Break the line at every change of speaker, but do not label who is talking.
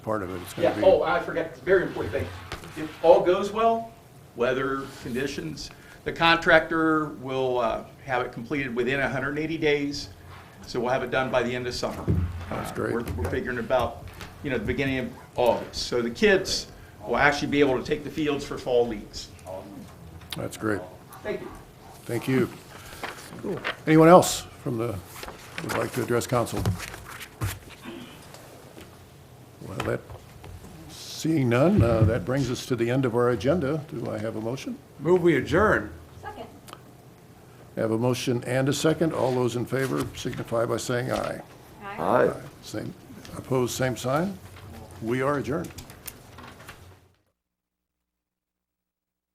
part of it. It's going
Yeah,
to be.
oh, I forgot, it's a very important thing. If all goes well, weather, conditions, the contractor will uh, have it completed within 180 days, so we'll have it done by the end of summer. That's
great.
We're we're figuring about, you know, the beginning of August. So the kids will actually be able to take the fields for fall leagues.
That's great.
Thank you.
Thank you. Cool. Anyone else from the, would like to address council? Well, that, seeing none, uh, that brings us to the end of our agenda. Do I have a motion?
Move we adjourn.
Second.
I Have a motion and a second. All those in favor signify by saying aye.
Aye.
Same, opposed, same sign. We are adjourned.